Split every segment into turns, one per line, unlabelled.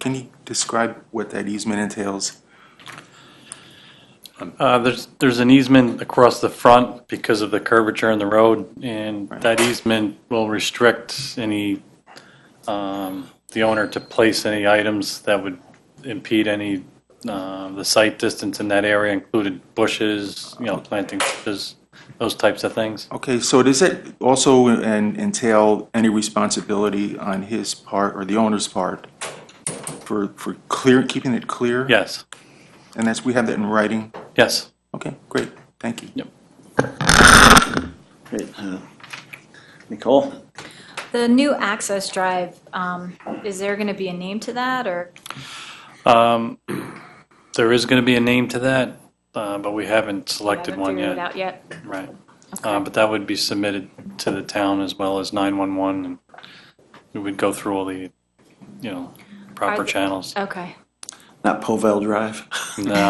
Can you describe what that easement entails?
Uh, There's, there's an easement across the front because of the curvature in the road, and that easement will restrict any, um, the owner to place any items that would impede any, uh, the site distance in that area, included bushes, you know, planting bushes, those types of things.
Okay, so does it also en- entail any responsibility on his part or the owner's part for, for clear, keeping it clear?
Yes,
And that's, we have that in writing?
yes.
Okay, great, thank you.
Great. uh, Nicole?
The new access drive, um, is there going to be a name to that, or,
Um, There is going to be a name to that, uh, but we haven't selected
haven't
one yet.
figured it out yet?
Right. Uh, But that would be submitted to the town as well as 911, and we would go through all the, you know, proper
Are- Oh.
channels.
Okay,
Not Povell Drive?
No,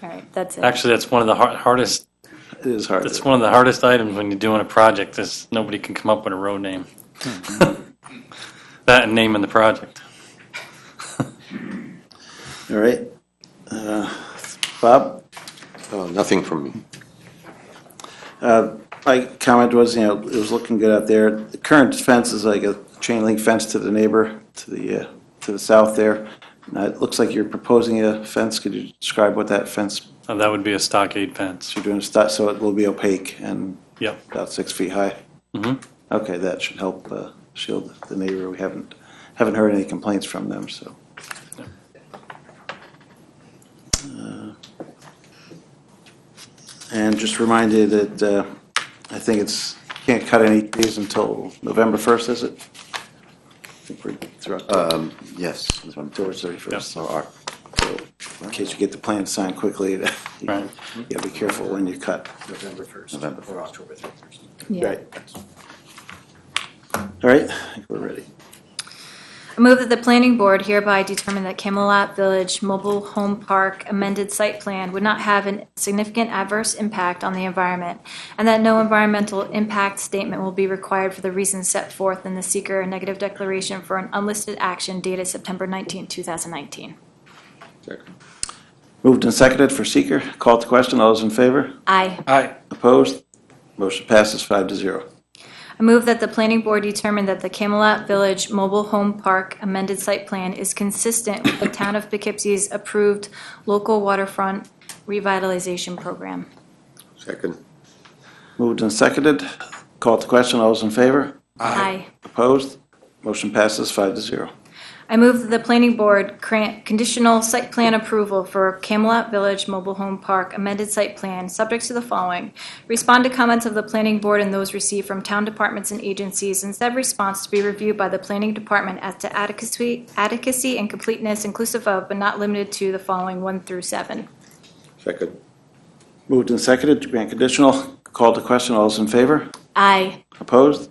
all right, that's it.
actually, that's one of the har- hardest,
It is hard.
that's
to-
one of the hardest items when you're doing a project, is nobody can come up with a road name. That and naming the project.
All right. Uh, Bob?
Oh, nothing from me.
My comment was, you know, it was looking good out there. The current fence is like a chain link fence to the neighbor, to the, uh, to the south there. Now, it looks like you're proposing a fence. Could you describe what that fence
Uh, That would be a stockade fence.
you're doing, sti- so it will be opaque and
Yep.
about six feet high?
Mhm.
Okay, that should help uh, shield the neighbor. We haven't, haven't heard any complaints from them, so. Uh, And just reminded that, uh, I think it's, can't cut any trees until November 1st, is it? I think we're through October,
Um, yes, that's what I'm
October
doing.
31st.
So, all right.
So in case you get the plan signed quickly, you
Right.
gotta be careful when you cut.
November 1st.
November
Or October 31st.
Yeah.
Right. All right, I think we're ready.
I move that the planning board hereby determine that Camelot Village Mobile Home Park amended site plan would not have a significant adverse impact on the environment, and that no environmental impact statement will be required for the reasons set forth in the seeker negative declaration for an unlisted action dated September 19, 2019.
Moved and seconded for seeker. Call to question. All those in favor?
Aye.
Opposed? Motion passes five to zero.
I move that the planning board determine that the Camelot Village Mobile Home Park amended site plan is consistent with the town of Poughkeepsie's approved local waterfront revitalization program.
Second.
Moved and seconded. Call to question. All those in favor?
Aye.
Opposed? Motion passes five to zero.
I move that the planning board grant conditional site plan approval for Camelot Village Mobile Home Park amended site plan, subject to the following. Respond to comments of the planning board and those received from town departments and agencies, and said response to be reviewed by the planning department as to adequacy, adequacy and completeness inclusive of, but not limited to, the following one through seven.
Second.
Moved and seconded to grant conditional. Call to question. All those in favor?
Aye.
Opposed?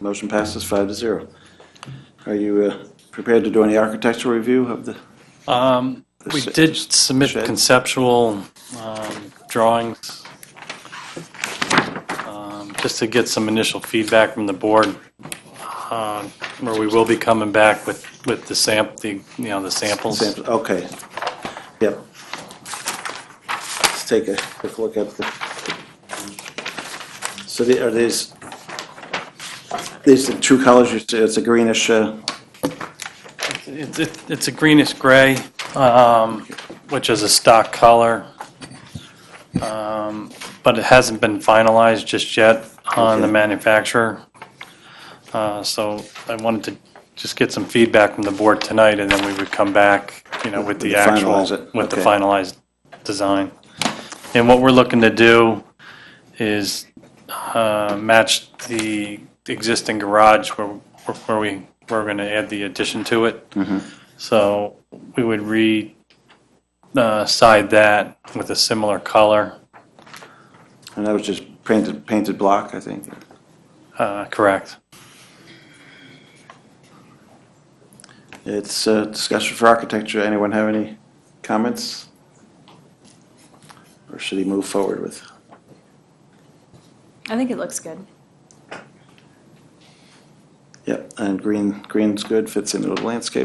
Motion passes five to zero. Are you uh, prepared to do any architectural review of the?
Um, We
Shed.
did submit
Shed.
conceptual um, drawings, um, just to get some initial feedback from the board, um, where we will be coming back with, with the samp, the, you know, the samples.
Samples, Okay. Yep. Let's take a quick look at the. So the- are these, these the true colors, You say it's a greenish, uh,
It's, it's- it's a greenish gray, um, which is a stock color, Um, but it hasn't been finalized just yet on the
Okay.
manufacturer. Uh, So I wanted to just get some feedback from the board tonight, and then we would come back, you know, with the
Finalize
actual,
it.
with the
Okay.
finalized design. And what we're looking to do is uh, match the existing garage where, where we, we're going to add the addition to it.
Mm-hmm.
So we would re, uh, side that with a similar color,
and that was just painted, painted block, I think.
uh, correct?
It's a discussion for architecture. Anyone have any comments? Or should he move forward with?
I think it looks good.
Yep. and green, green's good, fits into the landscape.